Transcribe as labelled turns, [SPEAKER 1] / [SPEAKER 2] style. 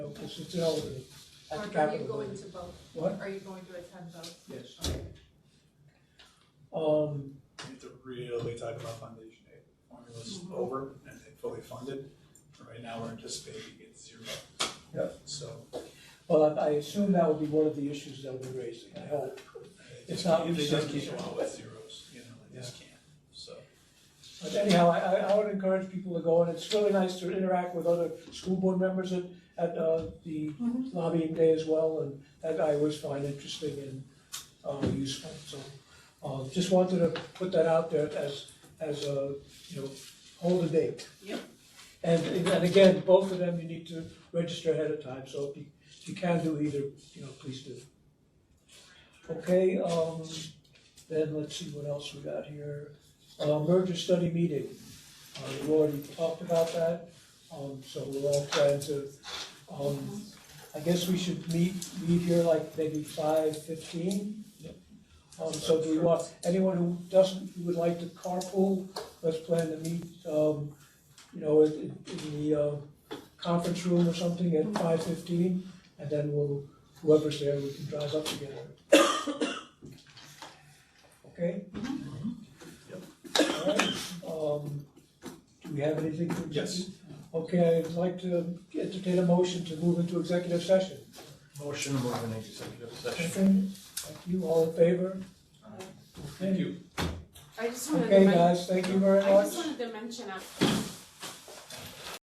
[SPEAKER 1] because it's elderly at the
[SPEAKER 2] Mark, are you
[SPEAKER 1] Capitol
[SPEAKER 2] going
[SPEAKER 1] building.
[SPEAKER 2] to vote?
[SPEAKER 1] What?
[SPEAKER 2] Are you going to attend vote?
[SPEAKER 1] Yes. Um,
[SPEAKER 3] You have to really talk about foundation aid. Formula's over and they fully funded. Right now, we're anticipating it's zero.
[SPEAKER 1] Yep.
[SPEAKER 3] So.
[SPEAKER 1] well, I I assume that will be one of the issues they'll be raising, I hope. It's not-
[SPEAKER 3] They just
[SPEAKER 1] it's
[SPEAKER 3] can't
[SPEAKER 1] not-
[SPEAKER 3] go out with zeros, you know, they just can't, so.
[SPEAKER 1] But anyhow, I, I I would encourage people to go, and it's really nice to interact with other school board members at, at uh, the lobbying day as well, and that I always find interesting and uh, useful, so. uh, Just wanted to put that out there as, as a, you know, hold a date.
[SPEAKER 2] Yep.
[SPEAKER 1] And, and again, both of them, you need to register ahead of time, so if you, if you can do either, you know, please do. Okay, um, then let's see what else we got here. Uh, merger study meeting, uh, we already talked about that, um, so we're all trying to, um, I guess we should meet, meet here like maybe five fifteen? Um, so do we want, anyone who doesn't, who would like to carpool, let's plan to meet, um, you know, in, in the, uh, conference room or something at five fifteen, and then we'll, whoever's there, we can drive up together. Okay?
[SPEAKER 3] Mm-hmm.
[SPEAKER 1] All right, um, Do we have anything? to-
[SPEAKER 3] Yes.
[SPEAKER 1] Okay, I'd like to entertain a motion to move into executive session.
[SPEAKER 4] Motion to move into executive session.
[SPEAKER 1] Second, thank you, all in favor?
[SPEAKER 3] Thank you.
[SPEAKER 5] I just wanted to
[SPEAKER 1] Okay,
[SPEAKER 5] mention,
[SPEAKER 1] guys, thank you very
[SPEAKER 5] I just
[SPEAKER 1] much.
[SPEAKER 5] wanted to mention, uh,